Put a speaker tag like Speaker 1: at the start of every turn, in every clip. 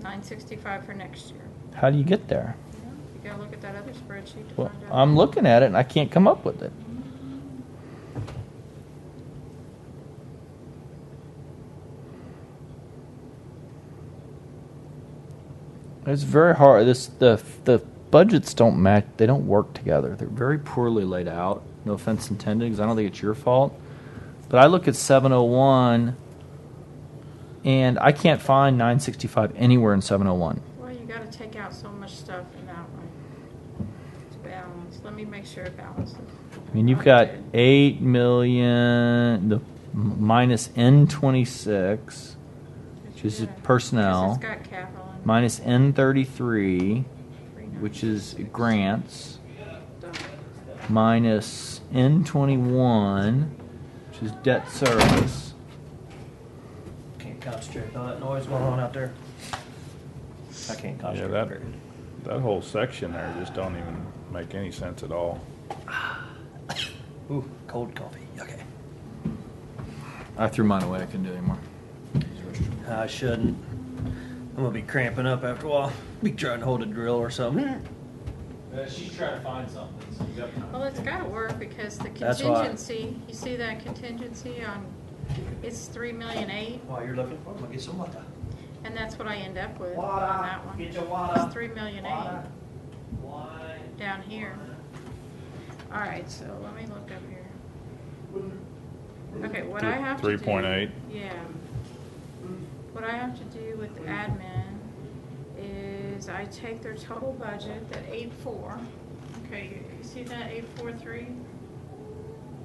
Speaker 1: nine sixty-five for next year.
Speaker 2: How do you get there?
Speaker 1: You know, You gotta look at that other spreadsheet to
Speaker 2: Well,
Speaker 1: find out.
Speaker 2: I'm looking at it and I can't come up with it. It's very hard. This the the budgets don't match. They don't work together. They're very poorly laid out. No offense intended, because I don't think it's your fault. But I look at 701, and I can't find 965 anywhere in 701.
Speaker 1: Well, you gotta take out so much stuff in that one to balance. Let me make sure it balances.
Speaker 2: I mean, you've
Speaker 1: I
Speaker 2: got
Speaker 1: did.
Speaker 2: eight million, the m- minus N twenty-six, which is
Speaker 1: Yeah, 'cause
Speaker 2: personnel,
Speaker 1: It's got capital in it.
Speaker 2: minus N thirty-three,
Speaker 1: Three nine
Speaker 2: which is
Speaker 1: six.
Speaker 2: grants,
Speaker 1: So,
Speaker 2: minus N twenty-one, which is debt service.
Speaker 3: Can't concentrate with all that noise going on out there. I can't
Speaker 4: Yeah,
Speaker 3: concentrate.
Speaker 4: that,
Speaker 3: period.
Speaker 4: that whole section there just don't even make any sense at all.
Speaker 3: Ooh, cold coffee. Okay.
Speaker 2: I threw mine away. I couldn't do it anymore.
Speaker 3: I shouldn't. I'm gonna be cramping up after a while. Be trying to hold a drill or something.
Speaker 1: Hmm.
Speaker 5: Uh, she's trying to find something, so you got time.
Speaker 1: Well, it's gotta work because the
Speaker 3: That's why-
Speaker 1: contingency, you see that contingency on, it's three million eight,
Speaker 3: While you're looking for 'em, I'll get some water.
Speaker 1: and that's what I end up with on
Speaker 3: Water,
Speaker 1: that one.
Speaker 3: get your water,
Speaker 1: It's three million eight.
Speaker 3: water. Why?
Speaker 1: down here. All right, so let me look up here. Okay, what I
Speaker 4: Three-
Speaker 1: have to do.
Speaker 4: 3.8.
Speaker 1: Yeah. What I have to do with admin is I take their total budget, that eight four. Okay, you you see that eight four three?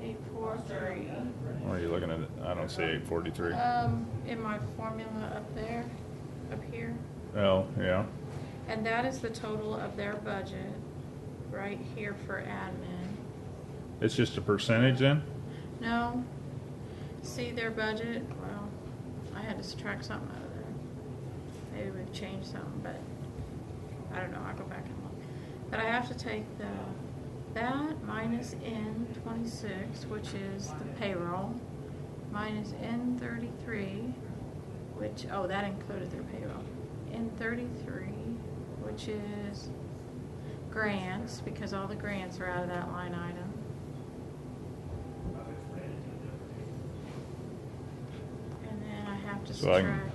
Speaker 1: Eight four three.
Speaker 4: What are you looking at? I don't see eight forty-three.
Speaker 1: Um, in my formula up there, up here.
Speaker 4: Oh, yeah.
Speaker 1: And that is the total of their budget, right here for admin.
Speaker 4: It's just a percentage then?
Speaker 1: No. See their budget? Well, I had to subtract something out of there. Maybe we've changed something, but I don't know. I'll go back and look. But I have to take the, that minus N twenty-six, which is the payroll, minus N thirty-three, which, oh, that included their payroll. N thirty-three, which is grants, because all the grants are out of that line item. And then I have to
Speaker 4: So I can-
Speaker 1: subtract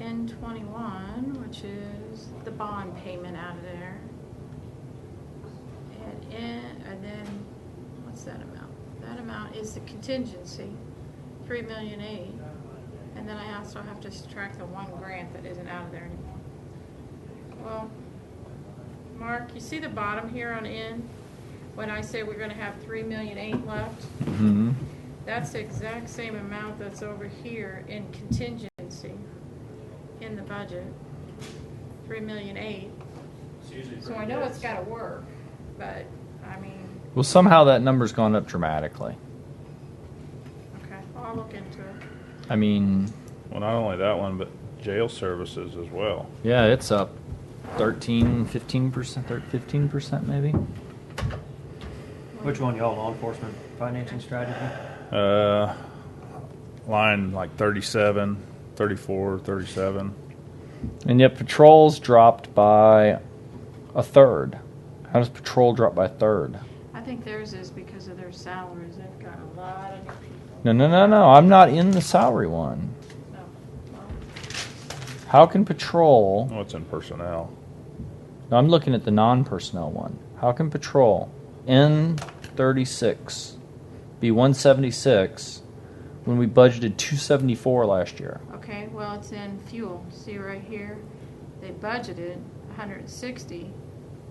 Speaker 1: N twenty-one, which is the bond payment out of there. And N, and then, what's that amount? That amount is the contingency, three million eight. And then I also have to subtract the one grant that isn't out of there anymore. Well, Mark, you see the bottom here on N? When I say we're gonna have three million eight left?
Speaker 2: Mm-hmm.
Speaker 1: That's the exact same amount that's over here in contingency in the budget, three million eight.
Speaker 5: It's usually
Speaker 1: So I
Speaker 5: pretty
Speaker 1: know
Speaker 5: good.
Speaker 1: it's gotta work, but, I mean,
Speaker 2: Well, somehow that number's gone up dramatically.
Speaker 1: okay, I'll look into it.
Speaker 2: I mean,
Speaker 4: Well, not only that one, but jail services as well.
Speaker 2: yeah, it's up 13, 15 percent, 15 percent maybe.
Speaker 3: Which one, y'all? Law enforcement financing strategy?
Speaker 4: Uh, line like 37, 34, 37.
Speaker 2: And yet patrols dropped by a third. How does patrol drop by a third?
Speaker 1: I think theirs is because of their salaries, they've got a lot of new people,
Speaker 2: No, no, no, no. I'm not in the salary one.
Speaker 1: so, well,
Speaker 2: How can patrol?
Speaker 4: What's in personnel?
Speaker 2: No, I'm looking at the non personnel one. How can patrol N36 be 176 when we budgeted 274 last year?
Speaker 1: okay, well, it's in fuel, see right here? They budgeted hundred and sixty,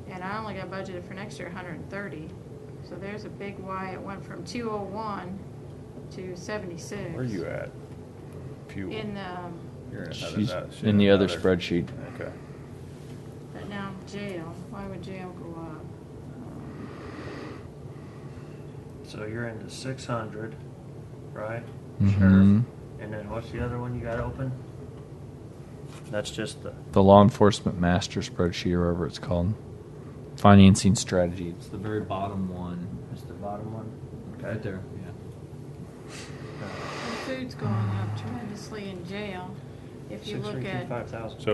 Speaker 1: and I only got budgeted for next year hundred and thirty. So there's a big why, it went from two oh one to seventy-six.
Speaker 4: Where are you at? Fuel.
Speaker 1: In um, the,
Speaker 4: You're in another-
Speaker 2: She's
Speaker 4: that- she's
Speaker 2: in the other
Speaker 4: another-
Speaker 2: spreadsheet.
Speaker 4: Okay.
Speaker 1: but now jail, why would jail go up?
Speaker 3: So you're into six hundred, right?
Speaker 2: Mhm.
Speaker 3: Sheriff. And then what's the other one you got open? That's just the
Speaker 2: The law enforcement master spreadsheet, or whatever it's called. Financing strategy. It's the very bottom one.
Speaker 3: It's the bottom one.
Speaker 2: Right there, yeah.
Speaker 1: The food's going up tremendously in jail. If you
Speaker 3: Six
Speaker 1: look
Speaker 3: three two
Speaker 1: at
Speaker 3: five thousand.
Speaker 4: So